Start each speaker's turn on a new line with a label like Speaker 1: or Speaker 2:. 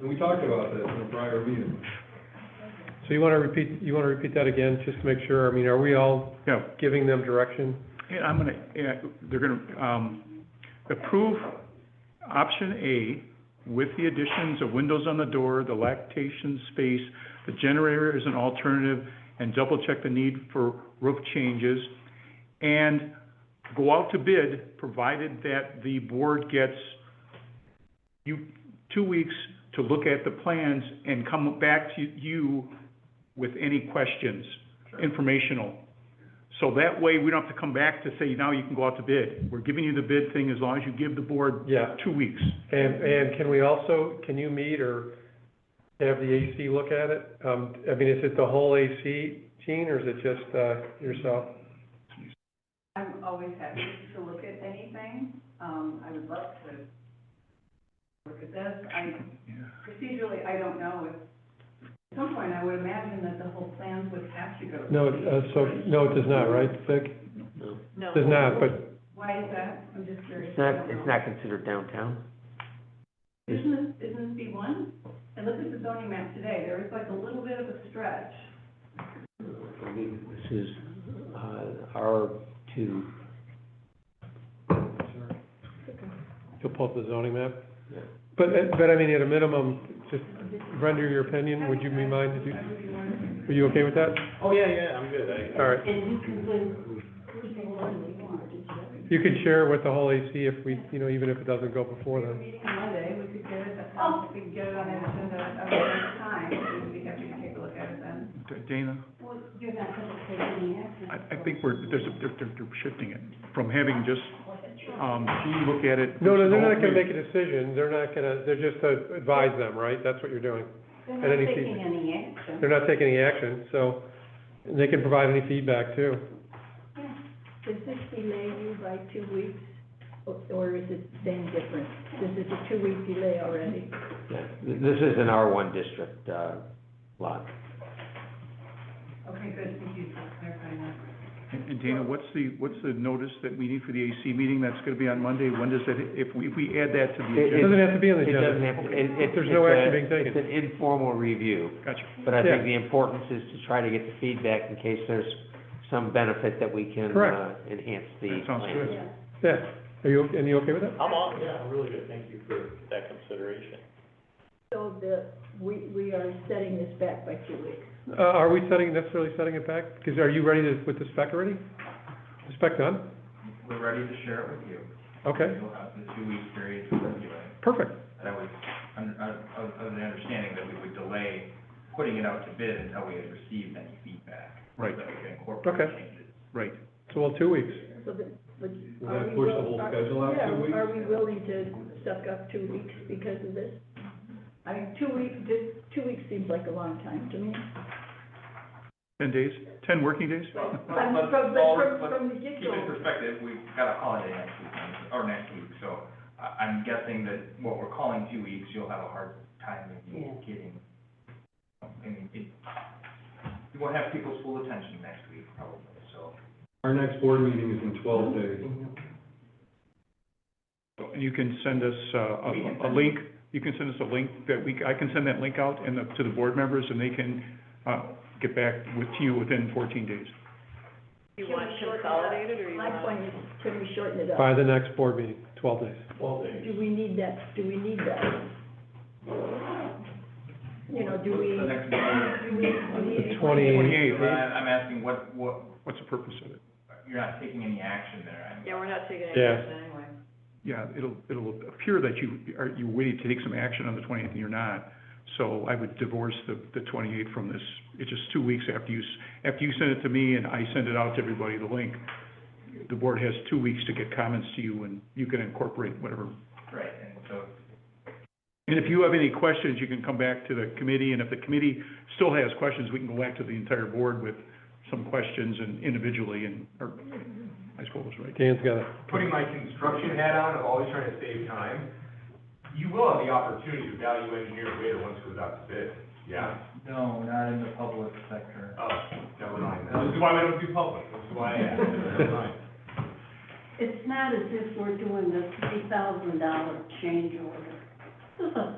Speaker 1: And we talked about this in a prior meeting.
Speaker 2: So you wanna repeat, you wanna repeat that again, just to make sure, I mean, are we all
Speaker 3: Yeah,
Speaker 2: giving them direction?
Speaker 3: and I'm gonna, yeah, they're gonna, um, approve option A with the additions of windows on the door, the lactation space, the generator as an alternative, and double check the need for roof changes, and go out to bid, provided that the board gets you, two weeks to look at the plans and come back to you with any questions, informational. So that way, we don't have to come back to say, now you can go out to bid. We're giving you the bid thing as long as you give the board
Speaker 2: Yeah,
Speaker 3: two weeks.
Speaker 2: and, and can we also, can you meet or have the AC look at it? Um, I mean, is it the whole AC, Gene, or is it just, uh, yourself?
Speaker 4: I'm always happy to look at anything. Um, I would love to look at this. I, procedurally, I don't know if, at some point, I would imagine that the whole plan would have to go. to
Speaker 2: No,
Speaker 4: the-
Speaker 2: uh, so, no, it does not, right, Vic?
Speaker 5: No.
Speaker 2: Does not, but,
Speaker 4: Why is that? I'm just curious.
Speaker 6: It's not, it's not considered downtown?
Speaker 4: Isn't this, isn't this B one? And look at the zoning map today. There is like a little bit of a stretch.
Speaker 6: I mean, this is, uh, R two,
Speaker 2: you'll pull up the zoning map?
Speaker 6: Yeah.
Speaker 2: But, uh, but I mean, at a minimum, just render your opinion, would you be mind, to do?
Speaker 4: I would be wondering.
Speaker 2: are you okay with that?
Speaker 7: Oh, yeah, yeah, I'm good, I.
Speaker 2: All right,
Speaker 5: And you can win
Speaker 2: you could share with the whole AC if we, you know, even if it doesn't go before
Speaker 4: We're
Speaker 2: then.
Speaker 4: meeting on Monday, we could get it, at- we could get it on the agenda at the same time, we'd be happy to take a look at it then.
Speaker 3: Dana?
Speaker 5: Well, you're not gonna take any action.
Speaker 3: I, I think we're, there's, a- they're, they're they're shifting it from having just, um, you look at it.
Speaker 2: No, no, they're not gonna make a decision, they're not gonna, they're just to advise them, right? That's what you're doing.
Speaker 5: They're
Speaker 2: At
Speaker 5: not
Speaker 2: any
Speaker 5: taking any action.
Speaker 2: They're not taking any action, so they can provide any feedback too.
Speaker 8: Does this delay you by two weeks, or- or is it then different? This is a two-week delay already.
Speaker 6: yeah, Th- this is an R one district, uh, lot.
Speaker 4: Okay, good, thank you for clarifying that.
Speaker 3: And and Dana, what's the, what's the notice that we need for the AC meeting? That's gonna be on Monday. When does that, if we, if we add that to the
Speaker 2: It
Speaker 3: agenda?
Speaker 6: It-
Speaker 2: doesn't have to be on the
Speaker 6: It doesn't
Speaker 2: agenda.
Speaker 6: have, to- it, it.
Speaker 2: There's no
Speaker 6: it's a-
Speaker 2: action being taken.
Speaker 6: It's an informal review,
Speaker 3: Gotcha.
Speaker 6: but I
Speaker 2: Yeah.
Speaker 6: think the importance is to try to get the feedback in case there's some benefit that we can,
Speaker 2: Correct.
Speaker 6: uh, enhance the plan.
Speaker 3: That sounds good.
Speaker 2: Yeah, are you, and you okay with that?
Speaker 7: I'm on, yeah, I'm really good, thank you for that consideration.
Speaker 8: So the, we, we are setting this back by two weeks.
Speaker 2: Uh, are we setting, necessarily setting it back? Because are you ready to, with the spec already? The spec done?
Speaker 9: We're ready to share it with you.
Speaker 2: Okay,
Speaker 9: You'll have the two-week period to review it.
Speaker 2: perfect.
Speaker 9: That was, un- un- of of the understanding that we would delay putting it out to bid until we had received any feedback.
Speaker 3: Right.
Speaker 9: That we could incorporate
Speaker 2: Okay.
Speaker 9: changes.
Speaker 3: Right.
Speaker 2: So, well, two weeks.
Speaker 8: So the, but
Speaker 1: We're
Speaker 8: are
Speaker 1: gonna
Speaker 8: we
Speaker 1: push the
Speaker 8: will-
Speaker 1: whole
Speaker 8: are-
Speaker 1: schedule out two weeks?
Speaker 8: Yeah, are we willing to suck up two weeks because of this? I mean, two weeks, this, two weeks seems like a long time to me.
Speaker 3: Ten days? Ten working days?
Speaker 9: Well,
Speaker 8: I mean,
Speaker 9: let's-
Speaker 8: from,
Speaker 9: well,
Speaker 8: from,
Speaker 9: let's-
Speaker 8: from the
Speaker 9: keep in
Speaker 8: get-go,
Speaker 9: perspective, we've got a holiday next weekend, or next week, so I, I'm guessing that what we're calling two weeks, you'll have a hard time
Speaker 5: Yeah.
Speaker 9: of getting. I mean, it, you won't have people's full attention next week probably, so.
Speaker 1: Our next board meeting is in twelve days.
Speaker 3: And you can send us, uh, a, a link, you can send us a link that we, I can send that link out and the, to the board members and they can, uh, get back with you within fourteen days.
Speaker 5: You want consolidated or you
Speaker 8: my
Speaker 5: want?
Speaker 8: point is, can we shorten it up?
Speaker 2: By the next board meeting, twelve days.
Speaker 7: Twelve days.
Speaker 8: Do we need that, do we need that? You know, do we,
Speaker 9: The next meeting,
Speaker 8: do we, do we?
Speaker 2: The twenty,
Speaker 3: Twenty-eighth,
Speaker 9: I- I'm asking what, what,
Speaker 3: what's the purpose of it?
Speaker 9: you're not taking any action there, I mean.
Speaker 5: Yeah, we're not taking any
Speaker 2: Yeah.
Speaker 5: action anyway.
Speaker 3: Yeah, it'll, it'll appear that you are, you waiting to take some action on the twentieth and you're not. So I would divorce the, the twenty-eighth from this. It's just two weeks after you, s- after you send it to me and I send it out to everybody, the link. The board has two weeks to get comments to you and you can incorporate whatever
Speaker 9: Right, and so
Speaker 3: And if you have any questions, you can come back to the committee, and if the committee still has questions, we can go back to the entire board with some questions and individually, and, or, I suppose, right?
Speaker 2: Dan's got it.
Speaker 7: Putting my construction hat on, of always trying to save time, you will have the opportunity to value engineer later once it goes out to bid, yeah?
Speaker 9: No, not in the public sector.
Speaker 7: Oh, never mind, then. this is why we don't do public, this is why I asked, never mind.
Speaker 5: It's not as if we're doing a three thousand dollar change order. This is a